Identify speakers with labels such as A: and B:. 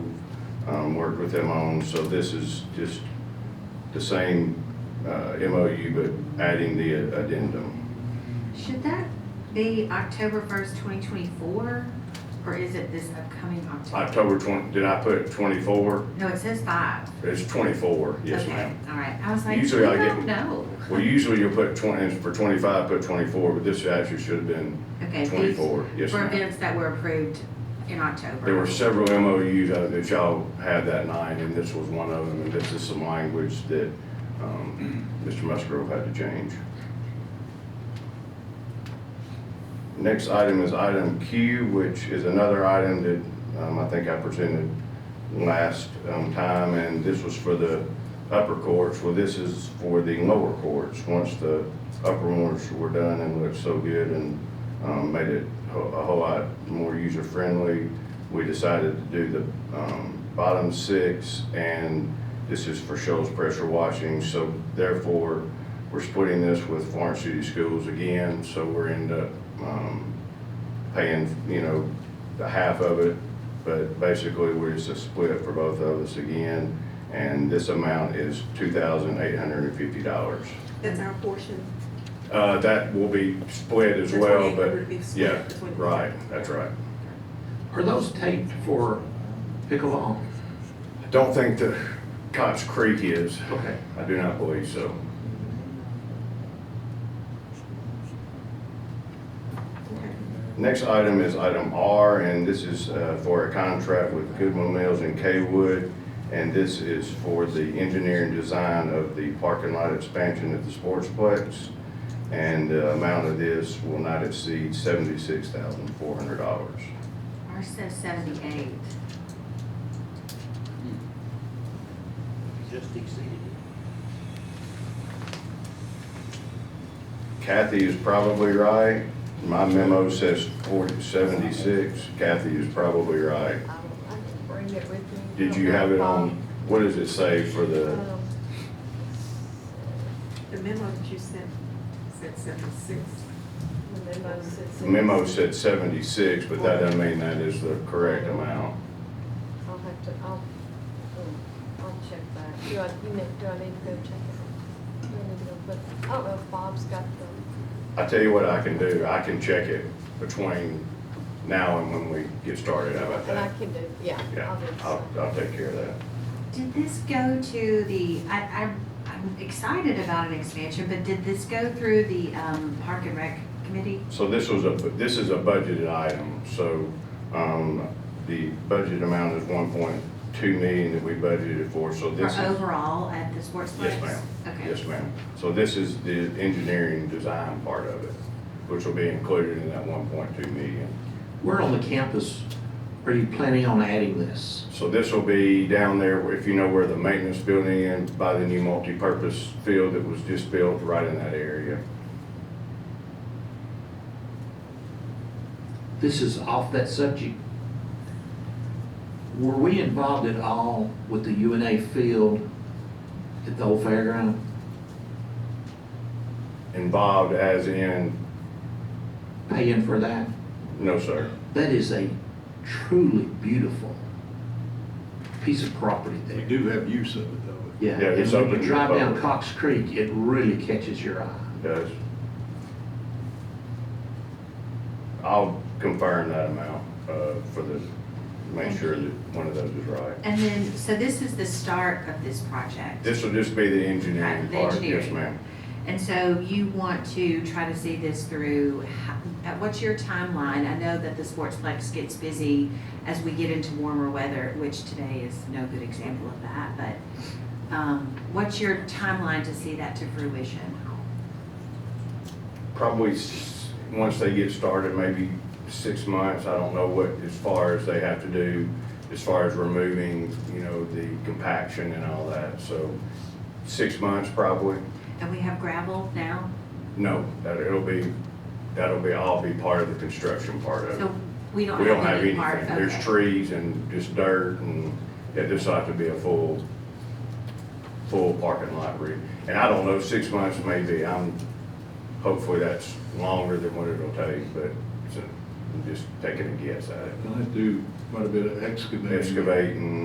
A: um, worked with them on. So this is just the same uh, MOU, but adding the addendum.
B: Should that be October first, twenty twenty-four, or is it this upcoming October?
A: October 20, did I put 24?
B: No, it says five.
A: It's 24, yes
B: Okay,
A: ma'am.
B: All right, I was like,
A: Usually I
B: I
A: get-
B: don't know.
A: Well, usually you'll put 20, for 25, put 24, but this actually should have been
B: Okay, these
A: 24, yes
B: were
A: ma'am.
B: events that were approved in October.
A: There were several MOUs out uh, that y'all had that night, and this was one of them, and this is some language that um, Mr. Musgrove had to change. Next item is item Q, which is another item that um, I think I presented last um, time, and this was for the upper courts. Well, this is for the lower courts, once the upper ones were done and looked so good and um, made it a a whole lot more user-friendly, we decided to do the um, bottom six, and this is for Shoals pressure washing, so therefore, we're splitting this with Florence City Schools again, so we're end up um, paying, you know, the half of it, but basically, we're just a split for both of us again, and this amount is two thousand eight hundred and fifty dollars.
C: That's our portion.
A: Uh, that will be split as
C: The
A: well,
C: 28
A: but,
C: would be split
A: yeah,
C: between the two.
A: right, that's right.
D: Are those taped for pickleball?
A: I Don't think the Cox Creek is,
D: Okay.
A: I do not believe so.
C: Okay.
A: Next item is item R, and this is uh, for a contract with Goodwin Mills and Kaywood. And this is for the engineering design of the parking lot expansion at the Sportsplex. And the amount of this will not exceed seventy-six thousand four hundred dollars.
B: Ours says seventy-eight.
E: Just exceeded
A: Kathy is probably right. My memo says forty, seventy-six. Kathy is probably right.
F: I didn't bring it with me.
A: Did you have it on, what does it say for the?
F: Um,
C: The memo that you sent, said seventy-six.
F: The memo said.
A: The memo said seventy-six, but that doesn't mean that is the correct amount.
F: I'll have to, I'll, um, I'll check that. Do I, you meant, do I need to go check it? Do I need to go put, I don't know if Bob's got the,
A: I tell you what I can do, I can check it between now and when we get started, how about
F: and I
A: that?
F: can do, yeah.
A: Yeah,
F: do it.
A: I'll, I'll take care of that.
B: Did this go to the, I, I'm, I'm excited about an expansion, but did this go through the, um, Park and Rec Committee?
A: So this was a, this is a budgeted item, so, um, the budget amount is one point two million that we budgeted for, so
B: Or
A: this is.
B: overall at the sports place?
A: Yes, ma'am.
B: Okay.
A: Yes, ma'am. So this is the engineering design part of it, which will be included in that one point two million.
D: Where on the campus are you planning on adding this?
A: So this will be down there, if you know where the maintenance building is, by the new multipurpose field that was just built right in that area.
D: This is off that subject. Were we involved at all with the UNA field at the old fairground?
A: Involved as in,
D: Paying for that?
A: no, sir.
D: That is a truly beautiful piece of property there.
E: We do have use of it though.
D: Yeah,
A: Yeah,
D: and
A: it's
D: when
A: open
D: you
A: to the
D: drive down
A: public.
D: Cox Creek, it really catches your eye.
A: Does. I'll confirm that amount, uh, for the, make sure that one of those is right.
B: And then, so this is the start of this project?
A: This will just be the engineering
B: Right, the
A: part, yes,
B: engineering.
A: ma'am.
B: And so you want to try to see this through, how- uh, what's your timeline? I know that the Sportsplex gets busy as we get into warmer weather, which today is no good example of that, but um, what's your timeline to see that to fruition?
A: Probably, s- once they get started, maybe six months, I don't know what, as far as they have to do, as far as removing, you know, the compaction and all that, so six months probably.
B: And we have gravel now,
A: No, that, it'll be, that'll be, all be part of the construction part of it.
B: so we don't
A: We don't have
B: have any
A: anything,
B: part.
A: there's
B: okay.
A: trees and just dirt and, yeah, this ought to be a full, full parking lot re. And I don't know, six months maybe, I'm, hopefully that's longer than what it'll take, but it's a- I'm just taking a guess at it.
E: I do quite a bit of excavating.
A: Excavating,